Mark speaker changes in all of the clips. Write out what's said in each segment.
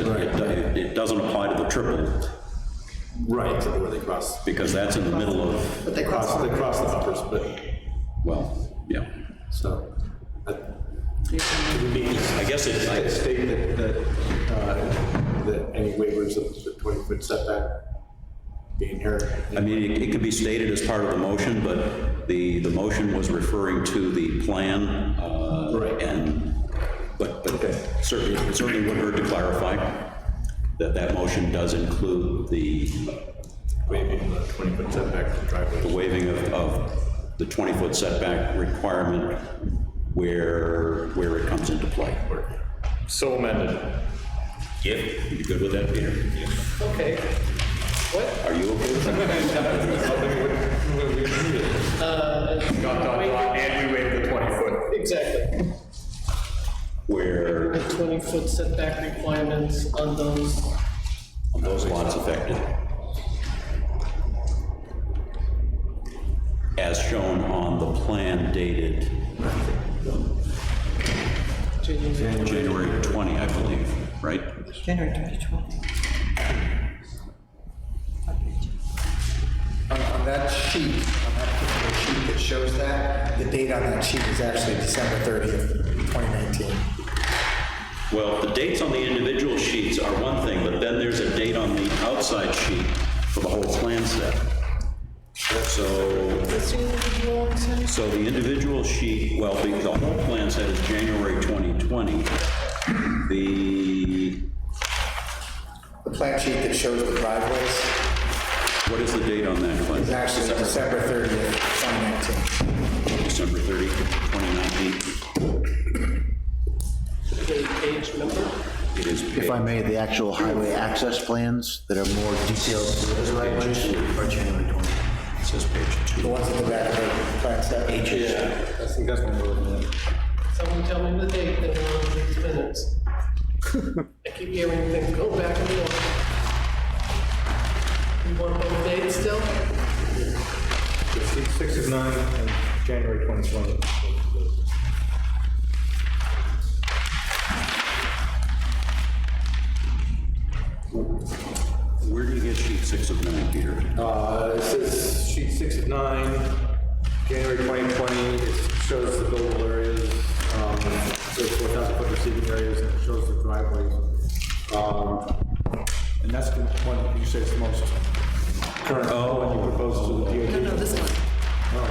Speaker 1: It- It, it doesn't apply to the triple,
Speaker 2: Right, where they cross,
Speaker 1: because that's in the middle of,
Speaker 3: But they cross
Speaker 2: cross, they
Speaker 3: over.
Speaker 2: cross the upper split,
Speaker 1: well, yeah.
Speaker 2: so. that-
Speaker 1: I guess it,
Speaker 2: I
Speaker 1: I-
Speaker 2: state that, that, uh, that any waivers of the twenty-foot setback be inherent.
Speaker 1: I mean, it- it could be stated as part of the motion, but the, the motion was referring to the plan, uh,
Speaker 2: Right.
Speaker 1: and, but, but certainly, it certainly would hurt to clarify that that motion does include the
Speaker 2: Waiving the twenty-foot setback from
Speaker 1: the
Speaker 2: driveway.
Speaker 1: waiving of, of the 20-foot setback requirement where, where it comes into play.
Speaker 4: So amended.
Speaker 1: Yep. You good with that, Peter?
Speaker 3: Okay. What?
Speaker 1: Are you okay with that?
Speaker 4: Dot, dot, dot, and we waived the 20 foot.
Speaker 3: Exactly. The
Speaker 1: Where
Speaker 3: 20-foot setback requirements on those,
Speaker 1: those lots affected? As shown on the plan dated
Speaker 3: January-
Speaker 1: January 20, I believe, right?
Speaker 5: January 2020.
Speaker 6: On, on that sheet, on that particular sheet that shows that, the date on that sheet is actually December thirtieth, twenty nineteen.
Speaker 1: Well, the dates on the individual sheets are one thing, but then there's a date on the outside sheet for the whole plan set. So,
Speaker 3: What's the individual one saying?
Speaker 1: so the individual sheet, well, the, the whole plan set is January 2020. The,
Speaker 6: The plant sheet that shows the driveways
Speaker 1: what is the date on that, Glenn?
Speaker 6: is actually December thirtieth, twenty nineteen.
Speaker 1: December 30, 2019.
Speaker 3: The page number?
Speaker 1: It is
Speaker 7: If I may, the actual highway access plans that are more detailed to those right ways are January 20.
Speaker 1: it says page
Speaker 6: The
Speaker 1: two.
Speaker 6: ones at the back of the plant set. Yeah, I think that's one we're looking at.
Speaker 3: Someone tell me the date, then we'll have these minutes. I keep hearing things go back and forth. You want both dates still?
Speaker 4: Six is nine, and January 2020.
Speaker 1: Where do you get sheet six of nine, Peter?
Speaker 2: Uh, it says sheet six of nine, January twenty twenty, it shows the buildable areas, um, the four thousand foot receiving areas, and it shows the driveways. Um, and that's the one you say is the most current, one you proposed to the DOT.
Speaker 5: No, this one.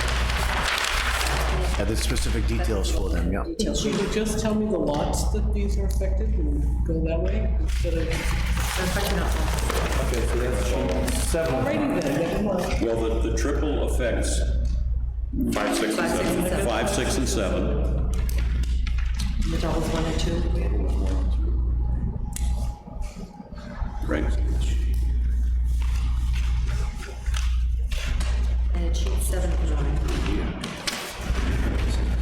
Speaker 7: Yeah, there's specific details for them, yeah.
Speaker 3: Should you just tell me the lots that these are affected and go that way instead of
Speaker 2: Okay, so that's sheet seven.
Speaker 3: writing them? Never mind.
Speaker 1: Well, the, the triple affects. Five, six, and seven. Five, six, and seven.
Speaker 5: The doubles one and two.
Speaker 1: Right.
Speaker 8: And it's sheet seven and nine.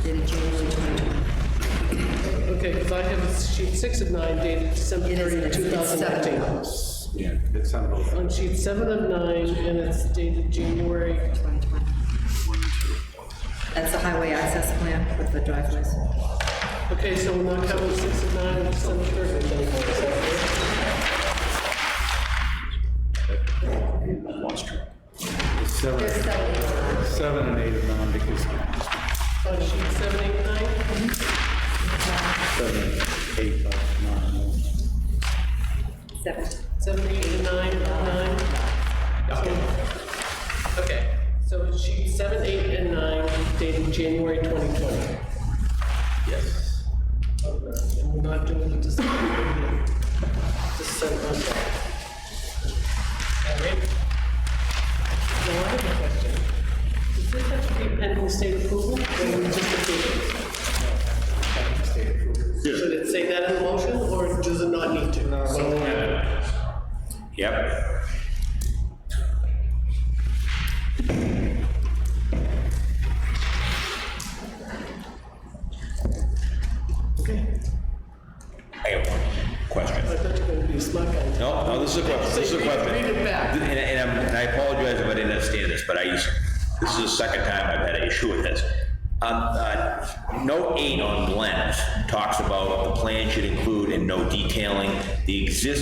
Speaker 8: Dated January 2020.
Speaker 3: Okay, because I have a sheet six of nine dated December
Speaker 8: It is-
Speaker 3: 30,
Speaker 8: it's- it's seven.
Speaker 3: 2019.
Speaker 2: Yeah, it's on both.
Speaker 3: On sheet seven of nine, and it's dated January,
Speaker 8: 2020. That's the highway access plan with the driveways.
Speaker 3: okay, so we're not counting six of nine, and December 30 of 19, is that correct?
Speaker 1: Lost track.
Speaker 2: Seven, seven and eight of nine, because
Speaker 3: On sheet seven, eight, nine?
Speaker 2: seven, eight of nine.
Speaker 8: Seven.
Speaker 3: Seven, eight, and nine, nine? So- Okay, so it's sheet seven, eight, and nine dated January 2020.
Speaker 2: Yes.
Speaker 3: Okay, And we're not doing the December 30th. December, okay. All right. Now, I have a question. Does this have to be pending state approval, or we just approve it? Should it say that in the motion, or does it not need to?
Speaker 1: Yep.
Speaker 3: Okay.
Speaker 1: I have one question.
Speaker 3: I thought you were gonna be a smart guy.
Speaker 9: No, no, this is a question, this is a question.
Speaker 3: Read it back.
Speaker 9: And, and I'm- and I apologize if I didn't understand this, but I, used- this is the second time I've had an issue with this. Um, uh, note eight on Glenn's talks about the plan should include and no detailing the existing